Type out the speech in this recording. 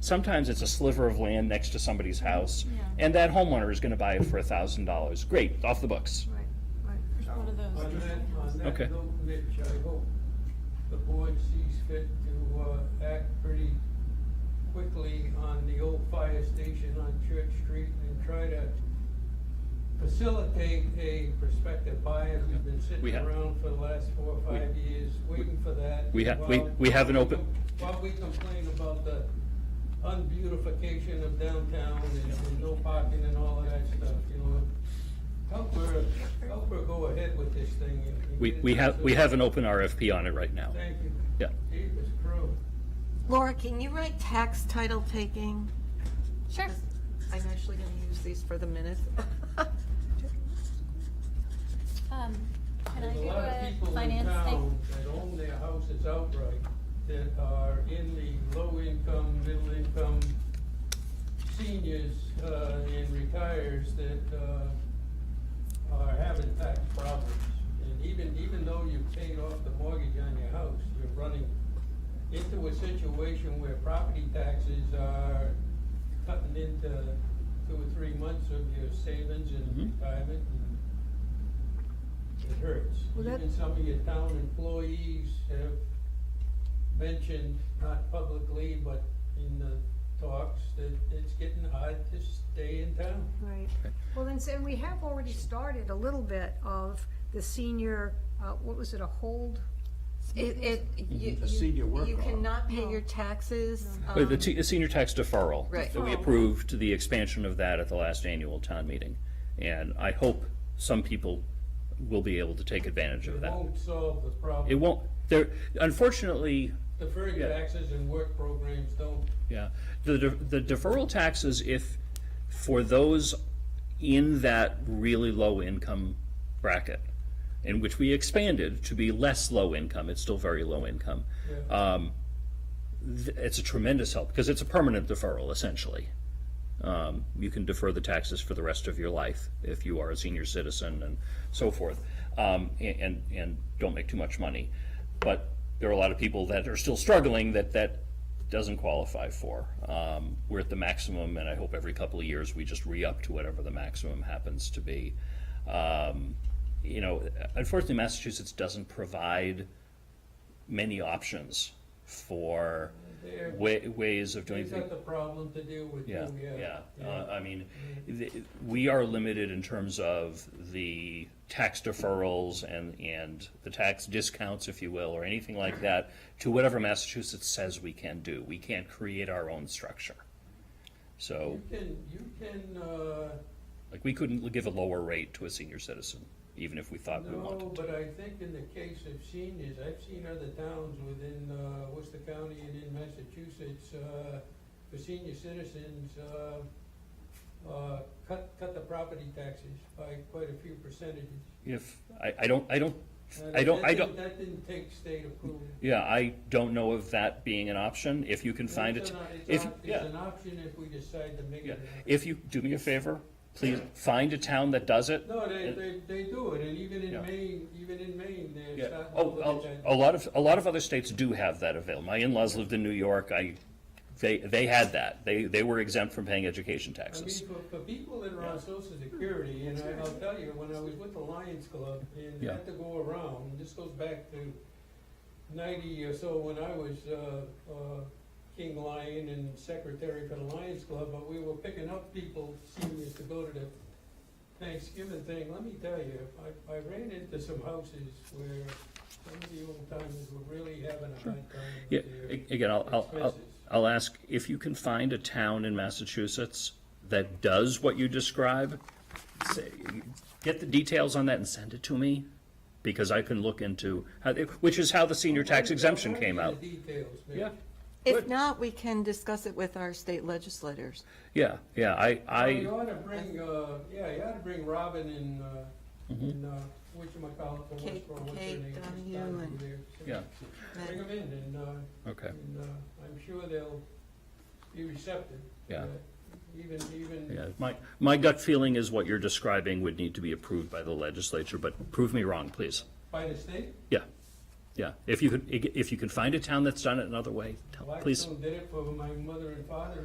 Sometimes it's a sliver of land next to somebody's house, Yeah. and that homeowner is gonna buy it for a thousand dollars. Great, off the books. Right, right. There's one of On those. that, on Okay. that note, Mitch, I hope the board sees fit to, uh, act pretty quickly on the old fire station on Church Street and try to facilitate a prospective buyer who's been We sitting have- around for the last four or five years, waiting for that. We ha- we- while- we have an open- While we complain about the unbeautification of downtown and and no parking and all of that stuff, you know, Help her, help her go ahead with this thing. and- and We, get it we have, we done. have an open RFP on it right now. Thank you. Yeah. Jesus Christ. Laura, can you write tax title taking? Sure. I'm actually gonna use these for the minutes. Um, can I There's a do lot of people a in finance town thing? That own their houses outright, that are in the low income, middle income seniors, uh, and retires that, uh, are having tax problems. And even, even though you've paid off the mortgage on your house, you're running into a situation where property taxes are cutting into two or three months of your savings and Mhm. retirement and it hurts. Well, that- Even some of your town employees have mentioned, not publicly, but in the talks, that it's getting hard to stay in town. Right. Well, then, and we have already started a little bit of the senior, uh, what was it, a hold? It, it, you, The senior you work you off. cannot pay your taxes. Uh, The um, te- the senior tax deferral. Right. We approved the expansion of that at the last annual town meeting. And I hope some people will be able to take advantage of It that. won't solve the problem. It won't, there, unfortunately, Deferred yeah. taxes and work programs don't Yeah, the, de- the deferral taxes, if, for those in that really low income bracket, in which we expanded to be less low income, it's still very low income. Yeah. Um, th- it's a tremendous help, because it's a permanent deferral essentially. Um, you can defer the taxes for the rest of your life if you are a senior citizen and so forth, um, a- and, and don't make too much money. But there are a lot of people that are still struggling that that doesn't qualify for. Um, we're at the maximum, and I hope every couple of years we just re-up to whatever the maximum happens to be. Um, you know, unfortunately, Massachusetts doesn't provide many options for There. wa- ways of doing They've things. got the problem to deal with, too, Yeah, yeah. yeah. Uh, I mean, th- we are limited in terms of the tax deferrals and, and the tax discounts, if you will, or anything like that, to whatever Massachusetts says we can do. We can't create our own structure. So, You can, you can, uh, like, we couldn't give a lower rate to a senior citizen, even if we thought we wanted No, to. but I think in the case of seniors, I've seen other towns within uh, Worcester County and in Massachusetts, uh, for senior citizens, uh, uh, cut, cut the property taxes by quite a few percentages. If, I, I don't, I don't, And I don't, that I didn't- don't, That didn't take state approval. yeah, I don't know of that being an option. If you can find It's it, an op- it's if, op- yeah. It's an option if we decide to make Yeah, it. an option. if you, do me a favor, please find a town that does it. No, they, And- they, they do it, and even Yeah. in Maine, even in Maine, they're Yeah, starting to oh, look at that. oh, a lot of, a lot of other states do have that available. My in-laws lived in New York, I, they, they had that. They, they were exempt from paying education I mean, taxes. for, for people that are on social security, and I- I'll tell you, when I was with the Lions Club, and Yeah. had to go around, and this goes back to ninety or so, when I was, uh, uh, King Lion and secretary for the Lions Club, but we were picking up people, seniors, to go to the Thanksgiving thing, let me tell you, I, I ran into some houses where some of the old timers were really having a hard time Yeah, with their a- again, I'll, I'll, I'll- expenses. I'll ask if you can find a town in Massachusetts that does what you describe, say, get the details on that and send it to me, because I can look into, how- which is how the senior tax exemption came out. The details, Mitch. Yeah, If not, we can discuss it with our state legislators. yeah, yeah, I, Well, I, You ought to bring, uh, yeah, you ought to bring Robin and, uh, Mm-hmm. and, uh, whatchamacallit, the Kate- Westboro, what's her Kate name? Donahue Donahue and- there. yeah, Bring them in and, uh, okay. and, uh, I'm sure they'll be receptive. to Yeah. that. Even, even, Yeah, my, my gut feeling is what you're describing would need to be approved by the legislature, but prove me wrong, please. by the state? Yeah, Yeah, if you could, if you can find a town that's done it another way, tell- please. Blackstone did it for my mother and father